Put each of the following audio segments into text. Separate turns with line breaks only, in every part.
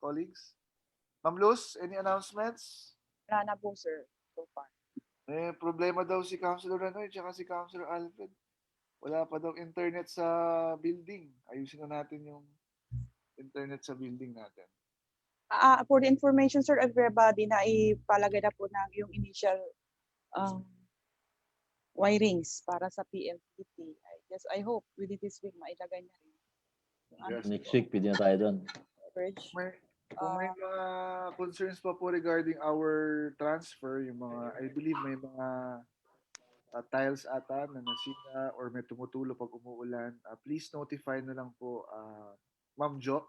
colleagues. Ma'am Luz, any announcements?
Wala na po, sir, so far.
May problema daw si Councilor Ranoy tsaka si Councilor Alfred. Wala pa daw internet sa building. Ayusin na natin yung internet sa building natin.
Ah, ah, for the information, sir, everybody, na ipalagay na po na yung initial um, wirings para sa PLDT. I guess, I hope, within this week, mailagay na rin. Yung ano,
Yes.
Next week, pwede na tayo doon.
coverage.
May, kung may
Ah.
mga concerns pa po regarding our transfer, yung mga, I believe may mga ah, tiles ata na nasira or may tumutulo pag umuulan, ah, please notify na lang po ah, Ma'am Jo,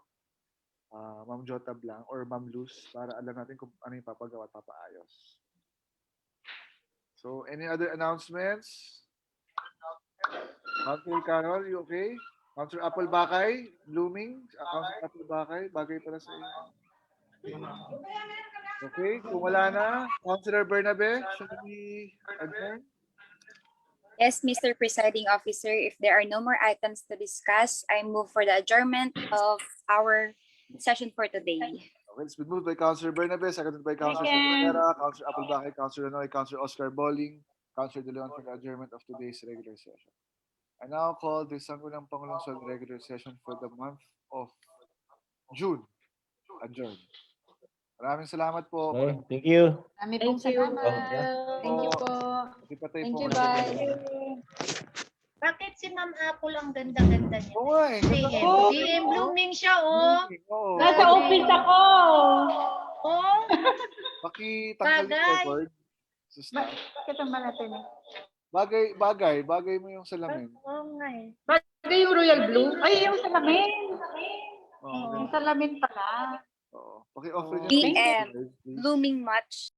ah, Ma'am Jo Tablang or Ma'am Luz para alam natin kung ano yung papagawa at papaayos. So, any other announcements? Councilor Carol, you okay? Councilor Apple Bakay, blooming. Uh, Councilor Apple Bakay, bagay pala sa iyo. Okay, kung wala na, Councilor Bernabe, should we adjourn?
Yes, Mr. Presiding Officer, if there are no more items to discuss, I move for the adjournment of our session for today.
Okay, it's been moved by Councilor Bernabe, seconded by Councilor Rivera, Councilor Apple Bakay, Councilor Noy, Councilor Oscar Bowling, Councilor De Leon for the adjournment of today's regular session. I now call the Sangguniang Pangulongsod regular session for the month of June. Adjourned. Maraming salamat po.
Okay, thank you.
Marami pong salamat. Thank you po.
Patay
Thank
po
you,
kayo.
bye.
Bakit si Ma'am Apple ang ganda-ganda niya?
Oo nga eh. ganda
DM.
ko.
DM blooming siya, oh.
Oo.
Nasa office
Oh, ako.
Oh,
Pakitanggal yung
Bagay.
record. sa staff.
Bakit ang malatin eh?
Bagay, bagay, bagay mo yung salamin.
oo nga eh.
Hindi yung royal blue. Ay, yung
salamin.
Oo.
Yung salamin pala.
Oo. Paki-offer niya.
DM.
please.
Blooming much.